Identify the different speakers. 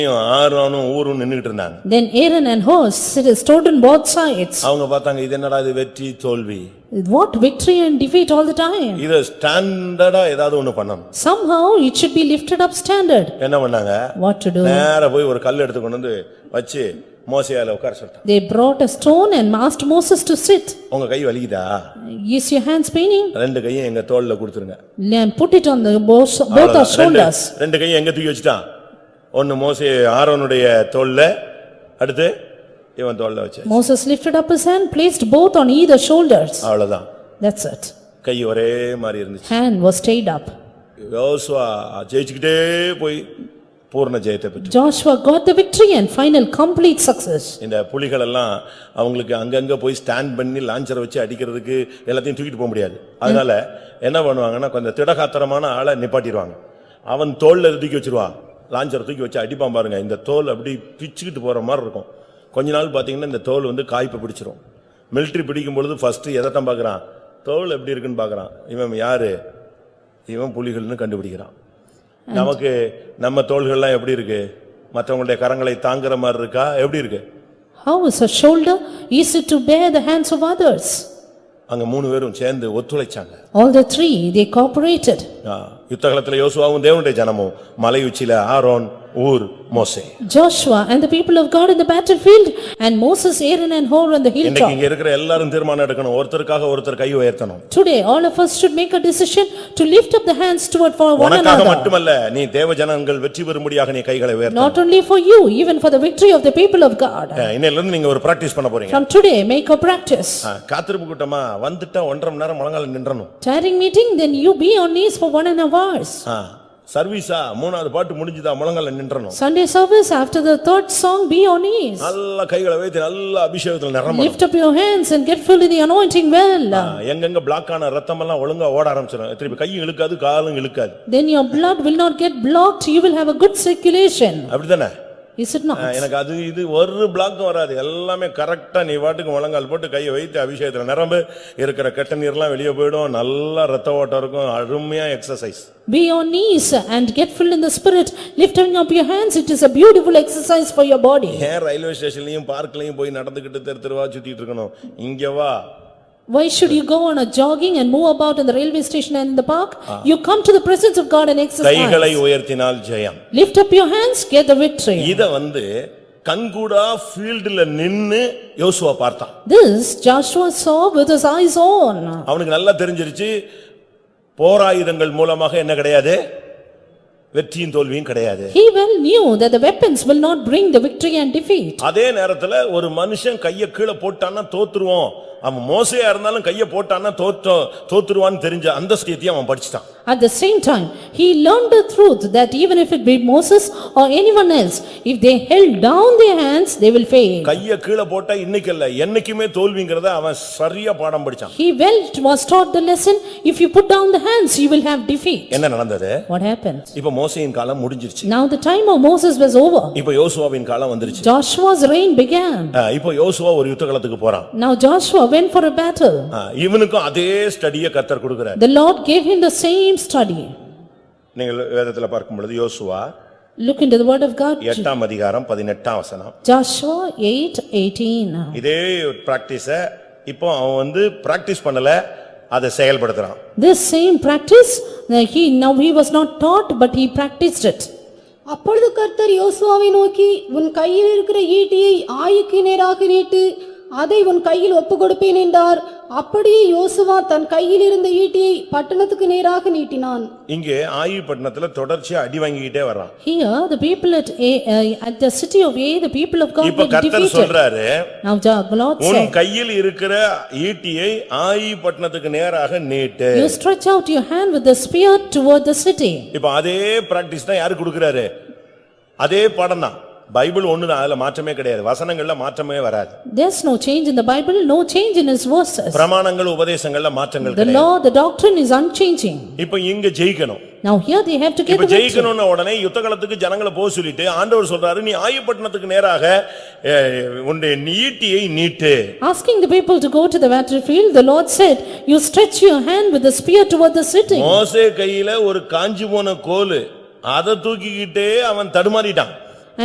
Speaker 1: ஆரோனும் ஊரும் நின்னுகிட்டு இருந்தாங்க
Speaker 2: Then Aaron and Hur stood stood on both sides.
Speaker 1: அவங்க பார்த்தாங்க இது என்னடா இது வெற்றி தோல்வி
Speaker 2: What victory and defeat all the time.
Speaker 1: இத ஸ்டாண்டர்டா ஏதாவது ஒண்ணு பண்ணணும்
Speaker 2: Somehow it should be lifted up standard.
Speaker 1: என்ன பண்ணாங்க
Speaker 2: What to do?
Speaker 1: நேரா போய் ஒரு கல் எடுத்து கொண்டு வந்து வச்சு மோசையால உட்கார சொல்லிட்டான்
Speaker 2: They brought a stone and asked Moses to sit.
Speaker 1: உங்க கை வலிக்குதா
Speaker 2: Is your hands paining?
Speaker 1: ரெண்டு கையும் எங்க தோல்ல கொடுத்துருங்க
Speaker 2: And put it on the both both our
Speaker 1: ரெண்டு-
Speaker 2: shoulders.
Speaker 1: ரெண்டு கையும் எங்க தூக்கி வச்சுட்டான் ஒன்னு மோசே ஆரோனுடைய தோல்ல அடுத்து இவன் தோல்ல வச்சு
Speaker 2: Moses lifted up his hand, placed both on either shoulders.
Speaker 1: அவ்வளவுதான்
Speaker 2: That's it.
Speaker 1: கை ஒரே மாதிரி இருந்துச்சு
Speaker 2: Hand was stayed up.
Speaker 1: யோசுவா ஜெயிச்சுக்கிட்டே போய் பூர்ண ஜெயத்தை பெற்று
Speaker 2: Joshua got the victory and final complete success.
Speaker 1: இந்த புலிகள் எல்லாம் அவங்களுக்கு அங்கங்க போய் ஸ்டாண்ட் பண்ணி லாஞ்சரை வச்சு அடிக்கிறதுக்கு எல்லாத்தையும் தூக்கிட்டு போக முடியாது அதனால என்ன பண்ணுவாங்கன்னா கொஞ்சம் திடகாத்திரமான ஆளை நிப்பாட்டிடுவாங்க அவன் தோல்ல இருந்து தூக்கி வச்சிருவான் லாஞ்சரை தூக்கி வச்சு அடிப்பான் பாருங்க இந்த தோல் அப்படி பிச்சுக்கிட்டு போற மாதிரி இருக்கும் கொஞ்ச நாள் பாத்தீங்கன்னா இந்த தோல் வந்து காய்ப்பு பிடிச்சிரும் மிலிட்டரி பிடிக்கும் பொழுது ஃபர்ஸ்ட் எதைத்தான் பார்க்கறான் தோல் எப்படி இருக்குன்னு பார்க்கறான் இவன் யாரு இவன் புலிகள்னு கண்டுபிடிக்கிறான் நமக்கு நம்ம தோள்கள்லாம் எப்படி இருக்கு மற்றவங்களுடைய கரங்களை தாங்குற மாதிரி இருக்கா எப்படி இருக்கு
Speaker 2: How is a shoulder easy to bear the hands of others?
Speaker 1: அங்க மூணு பேரும் சேர்ந்து ஒத்துழைச்சாங்க
Speaker 2: All the three, they cooperated.
Speaker 1: ஆ, யுத்தகலத்துல யோசுவாவும் தேவனுடைய ஜனமும் மலை உச்சியில ஆரோன் ஊர் மோசே
Speaker 2: Joshua and the people of God in the battlefield and Moses, Aaron and Hor on the
Speaker 1: இன்னைக்கு
Speaker 2: hilltop.
Speaker 1: இங்க இருக்கிற எல்லாரும் தீர்மானம் எடுக்கணும் ஒருத்தருக்காக ஒருத்தர் கை உயர்த்தணும்
Speaker 2: Today, all of us should make a decision to lift up the hands toward for one
Speaker 1: உனக்காக
Speaker 2: another.
Speaker 1: மட்டுமல்ல நீ தேவ ஜனங்கள் வெற்றி பெறும்படியாக நீ கைகளை உயர்த்தணும்
Speaker 2: Not only for you, even for the victory of the people of God.
Speaker 1: ஆ, இன்னையில இருந்து நீங்க ஒரு பிராக்டிஸ் பண்ண போறீங்க
Speaker 2: From today, make a practice.
Speaker 1: ஆ, காத்திருப்பு கூட்டமா வந்துட்டா ஒன்றரை மணி நேரம் முழங்கால நின்றணும்
Speaker 2: Tiring meeting, then you be on knees for one and a half hours.
Speaker 1: ஆ, சர்வீஸா மூணாவது பாட்டு முடிஞ்சுதா முழங்கால நின்றணும்
Speaker 2: Sunday service, after the third song, be on knees.
Speaker 1: நல்லா கைகளை வைத்து நல்லா அபிஷேகத்துல நிரம்ப
Speaker 2: Lift up your hands and get filled with the anointing well.
Speaker 1: எங்கெங்க பிளாக் ஆன ரத்தமெல்லாம் ஒழுங்கா ஓட ஆரம்பிச்சிடும் திருப்பி கையும் இழுக்காது காலும் இழுக்காது
Speaker 2: Then your blood will not get blocked, you will have a good circulation.
Speaker 1: அப்படிதானே
Speaker 2: Is it not?
Speaker 1: ஆ, எனக்கு அது இது ஒரு பிளாக்கும் வராது எல்லாமே கரெக்டா நீ வாட்டுக்கு முழங்கால் போட்டு கையை வைத்து அபிஷேகத்துல நிரம்பு இருக்கிற கெட்ட நீர்லாம் வெளியே போயிடும் நல்லா ரத்த ஓட்டம் இருக்கும் அருமையா exercise
Speaker 2: Be on knees and get filled in the spirit, lifting up your hands, it is a beautiful exercise for your body.
Speaker 1: ஏன் ரயில்வே ஸ்டேஷன்லயும் பார்க்லயும் போய் நடந்துகிட்டு தெரு தெருவா சுத்திட்டு இருக்கணும் இங்க வா
Speaker 2: Why should you go on a jogging and move about in the railway station and in the park? You come to the presence of God and exercise.
Speaker 1: கைகளை உயர்த்தினால் ஜெயம்
Speaker 2: Lift up your hands, get the victory.
Speaker 1: இத வந்து கண்கூடா ஃபீல்டுல நின்னு யோசுவா பார்த்தான்
Speaker 2: This Joshua saw with his eyes on.
Speaker 1: அவனுக்கு நல்லா தெரிஞ்சிருச்சு போராயுதங்கள் மூலமாக என்ன கிடையாது வெற்றியும் தோல்வியும் கிடையாது
Speaker 2: He well knew that the weapons will not bring the victory and defeat.
Speaker 1: அதே நேரத்துல ஒரு மனுஷன் கைய கீழே போட்டான்னா தோத்துருவோம் அவன் மோசையா இருந்தாலும் கைய போட்டான்னா தோற்ற தோத்துருவான்னு தெரிஞ்ச அந்த ஸ்டேத்தையும் அவன் படிச்சுட்டான்
Speaker 2: At the same time, he learned the truth that even if it be Moses or anyone else, if they held down their hands, they will fail.
Speaker 1: கைய கீழே போட்டா இன்னைக்கு இல்ல என்னைக்குமே தோல்விங்கிறத அவன் சரியா பாடம் படிச்சான்
Speaker 2: He well was taught the lesson, if you put down the hands, you will have defeat.
Speaker 1: என்ன நடந்தது
Speaker 2: What happened?
Speaker 1: இப்ப மோசையின் காலம் முடிஞ்சிருச்சு
Speaker 2: Now the time of Moses was over.
Speaker 1: இப்ப யோசுவாவின் காலம் வந்துருச்சு
Speaker 2: Joshua's reign began.
Speaker 1: அஹ் இப்ப யோசுவா ஒரு யுத்த காலத்துக்கு போறான்
Speaker 2: Now Joshua went for a battle.
Speaker 1: அஹ் இவனுக்கும் அதே ஸ்டடியை கத்தர் கொடுக்கிறார்
Speaker 2: The Lord gave him the same study.
Speaker 1: நீங்கள் வேதத்துல பார்க்கும் பொழுது யோசுவா
Speaker 2: Look into the word of God.
Speaker 1: எட்டாம் அதிகாரம் பதினெட்டாம் வசனம்
Speaker 2: Joshua eight eighteen.
Speaker 1: இதே பிராக்டிஸ இப்போ அவன் வந்து பிராக்டிஸ் பண்ணல அதை செயல்படுத்துறான்
Speaker 2: This same practice, uh, he, now he was not taught, but he practiced it.
Speaker 3: அப்பொழுது கர்த்தர் யோசுவாவை நோக்கி உன் கையில் இருக்கிற ஈட்டியை ஆயுக்கு நேராக நீட்டு அதை உன் கையில் ஒப்புக்கொடுப்பேன் என்றார் அப்படியே யோசுவா தன் கையில் இருந்த ஈட்டியை பட்டணத்துக்கு நேராக நீட்டினான்
Speaker 1: இங்கே ஆயுபட்டினத்துல தொடர்ச்சியா அடி வாங்கிக்கிட்டே வர்றான்
Speaker 2: Here, the people at A, uh, at the city of A, the people of God
Speaker 1: இப்ப
Speaker 2: were
Speaker 1: கர்த்தர்
Speaker 2: defeated.
Speaker 1: சொல்றாரு
Speaker 2: Now the Lord
Speaker 1: உன்
Speaker 2: said,
Speaker 1: கையில் இருக்கிற ஈட்டியை ஆயுபட்டினத்துக்கு நேராக நீட்டு
Speaker 2: "You stretch out your hand with the spear toward the city."
Speaker 1: இப்ப அதே பிராக்டிஸ் தான் யாரு கொடுக்கறாரு அதே பாடம் தான் பைபிள் ஒண்ணுதான் அதுல மாற்றமே கிடையாது வசனங்கள்ல மாற்றமே வராது
Speaker 2: There's no change in the Bible, no change in his verses.
Speaker 1: பிரமாணங்கள் உபதேசங்கள்ல மாற்றங்கள்
Speaker 2: The
Speaker 1: கிடையாது
Speaker 2: law, the doctrine is unchanging.
Speaker 1: இப்ப இங்க ஜெயிக்கணும்
Speaker 2: Now here they have to get
Speaker 1: இப்ப
Speaker 2: the victory.
Speaker 1: ஜெயிக்கணும்னு உடனே யுத்த காலத்துக்கு ஜனங்களை போக சொல்லிட்டு ஆண்டவர் சொல்றாரு நீ ஆயுபட்டினத்துக்கு நேராக அஹ், உன்னுடைய நீட்டியை நீட்டு
Speaker 2: Asking the people to go to the battlefield, the Lord said, "You stretch your hand with the spear toward the city."
Speaker 1: மோசே கையில ஒரு காஞ்சு போன கோலு அதை தூக்கிக்கிட்டே அவன் தடுமாறிட்டான்